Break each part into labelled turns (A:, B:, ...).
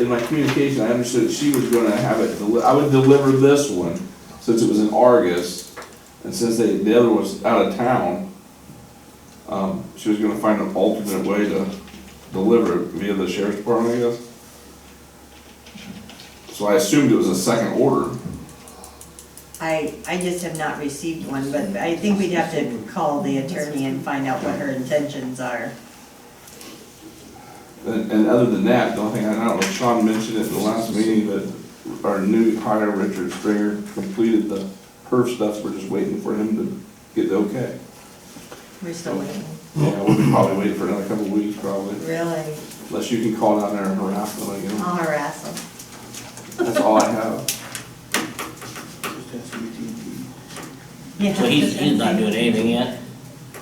A: in my communication, I understood she was gonna have it, deli- I would deliver this one, since it was in Argus, and since they, the other was out of town, um, she was gonna find an alternate way to deliver it via the sheriff's department, I guess. So I assumed it was a second order.
B: I, I just have not received one, but I think we'd have to call the attorney and find out what her intentions are.
A: And, and other than that, the only thing I know, was Sean mentioned at the last meeting that our new hire, Richard Stringer, completed the perf stuff, we're just waiting for him to get the okay.
B: We're still waiting.
A: Yeah, we'll be probably waiting for another couple of weeks probably,
B: Really?
A: unless you can call down there and harass them again.
B: I'll harass them.
A: That's all I have.
B: Yeah.
C: So he's, he's not doing anything yet?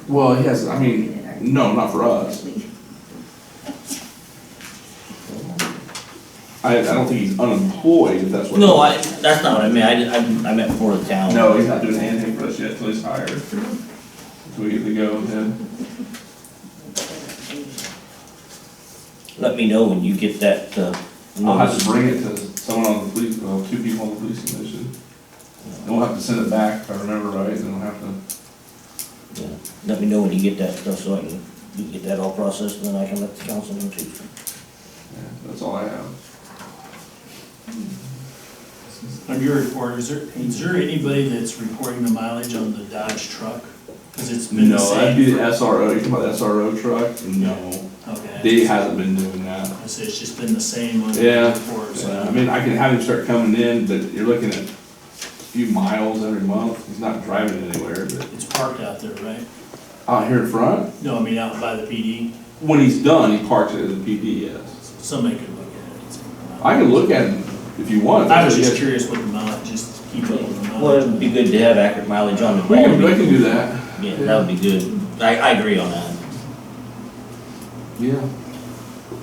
A: Well, he has, I mean, no, not for us. I, I don't think he's unemployed, if that's what.
C: No, I, that's not what I meant, I, did- I, I meant for the town.
A: No, he's not doing anything for us yet till he's hired. Till we get the go with him.
C: Let me know when you get that, uh.
A: I'll have
C: notice.
A: to bring it to someone on the police, well, two people on the police commission. And we'll have to send it back, if I remember right, then we'll have to,
C: Yeah. Let me know when you get that stuff, so I can, you get that all processed, and then I can let the council know too.
A: yeah, that's all I have.
D: On your report, is there, is there anybody that's reporting the mileage on the Dodge truck? Because it's been the
A: No, that'd be
D: same.
A: the SRO, you talking about the SRO truck? No,
D: Okay,
A: they hasn't been doing that.
D: I say it's just been the same on
A: Yeah.
D: the report,
A: So, I
D: so.
A: mean, I can have him start coming in, but you're looking at a few miles every month, he's not driving anywhere, but
D: It's parked out there, right?
A: out here in front,
D: No, I mean, out by the PD,
A: when he's done, he parks it at the PD, yes.
D: somebody could look at it.
A: I can look at him if you want.
D: I was just
A: Yeah.
D: curious what the mileage, just keep up with the
C: Well, it'd be
D: mileage.
C: good to have accurate mileage on the
A: We can, we
C: ball.
A: can do that,
C: Yeah, that would be good, I, I agree on that.
A: yeah,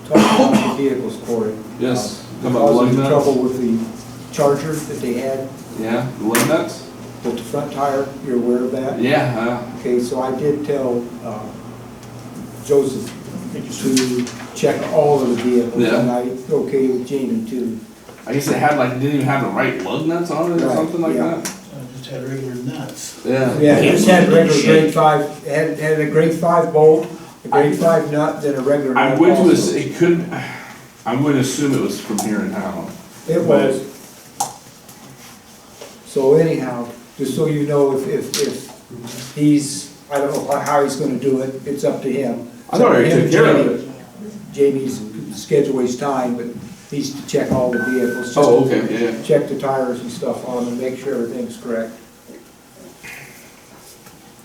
E: Talking about the vehicles, Corey.
A: yes. How
E: Uh,
A: about the lug
E: Causing
A: nuts?
E: trouble with the charger that they had
A: Yeah, the lug nuts?
E: with the front tire, you're aware of that?
A: Yeah,
E: Okay, so I did tell uh, Joseph
D: Thank you, sir.
E: to check all of the vehicles,
A: Yeah.
E: and I, okay with Jamie too.
A: uh, I guess it had like, it didn't even have the right lug nuts on it or
E: Right,
A: something like
E: yeah.
A: that.
D: I just had regular nuts.
A: Yeah.
E: Yeah, it
C: it's
E: had regular
C: shit.
E: grade five, had, had a grade five bolt, a grade five nut, then a regular
A: I
E: nut
A: would to, ass-
E: also.
A: it could, I would assume it was from here in town.
E: It was. So anyhow, just so you know, if, if, if he's, I don't know how- how he's gonna do it, it's up to him.
A: I thought he took care of it.
E: Jamie's schedule his time, but he's to check all the vehicles.
A: Oh, okay, yeah.
E: Check the tires and stuff on them, make sure everything's correct.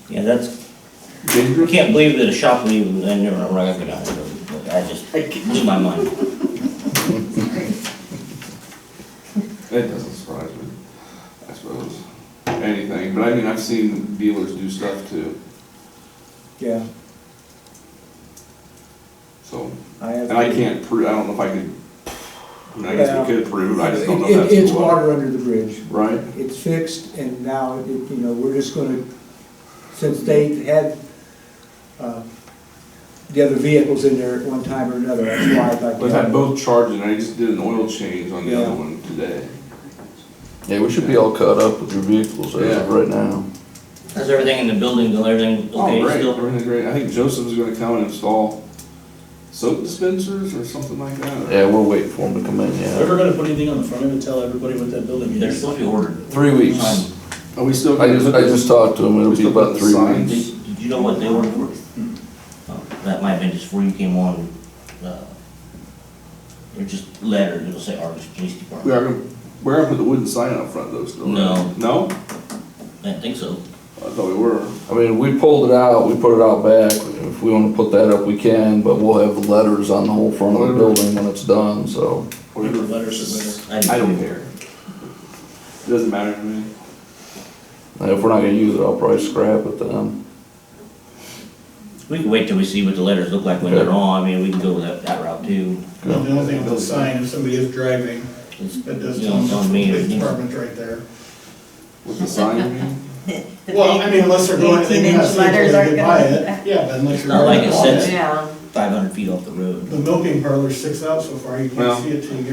C: Yeah, that's, I
A: Dangerous?
C: can't believe that a shop would even, I never, I'm not gonna go down there, but I just, blew my mind.
A: It doesn't surprise me, I suppose, anything, but I mean, I've seen dealers do stuff too,
E: Yeah,
A: so.
E: I have.
A: And I can't prove, I don't know if I could, I mean, I guess we could prove, it, I just don't know
E: It-
A: if that's.
E: it- It's
A: what-
E: water under the bridge.
A: Right?
E: it's fixed, and now, it- you know, we're just gonna, since they had, uh, the other vehicles in there at one time or another, that's why I'd like
A: I've had
E: to.
A: both charging, I just did an oil change on the other
E: Yeah.
A: one today.
F: Yeah, we should be all caught up with your vehicles as of
A: Yeah.
F: right now.
C: Is everything in the building, and everything
A: Oh,
C: okay
A: great,
C: still?
A: everything's great, I think Joseph's gonna come and install soap dispensers or something like that.
F: Yeah, we're waiting for them to come in, yeah.
G: Ever gonna put anything on the front of it, tell everybody what that building
C: They're
G: is?
C: supposed to be ordered.
F: Three weeks.
C: Um,
A: Are we still?
F: I
A: gonna
F: just,
A: put
F: I
A: this-
F: just talked to them, it'll be about three
A: Signs.
F: weeks.
C: Did, did you know what they ordered for? Oh, That might have been just before you came on, uh, they're just letters, it'll say Argus Police
A: We
C: Department.
A: are gonna, we're gonna put the wooden sign up front though still, right?
C: No.
A: No?
C: I think so.
A: I thought we were.
F: I mean, we pulled it out, we put it out back, if we wanna put that up, we can, but we'll have the letters on the whole front of the
A: Whatever.
F: building when it's done, so.
G: Whatever letters are better.
C: I didn't-
A: I don't care. It doesn't matter to me.
F: And if we're not gonna use it, I'll probably scrap it then.
C: We can wait till we see what the letters look like when
F: Okay.
C: they're on, I mean, we can go that, that route too.
G: The only thing about the sign, if somebody is driving,
C: It's,
G: that does
C: you
G: tell
C: know,
G: them
C: it's on me. you
G: police
C: know.
G: department's right there.
A: With the sign, you mean?
B: The
G: Well, I
B: big
G: mean, unless they're going, they may
B: 18
G: not
B: -inch
G: see it,
B: letters
G: they
B: aren't
G: could buy
B: gonna-
G: it, yeah, but unless you're.
C: Not like it
G: driving on
C: says-
B: Yeah.
C: five hundred feet off the road.
G: The milking parlor sticks out so far, you
A: Well.
G: can't see it till you get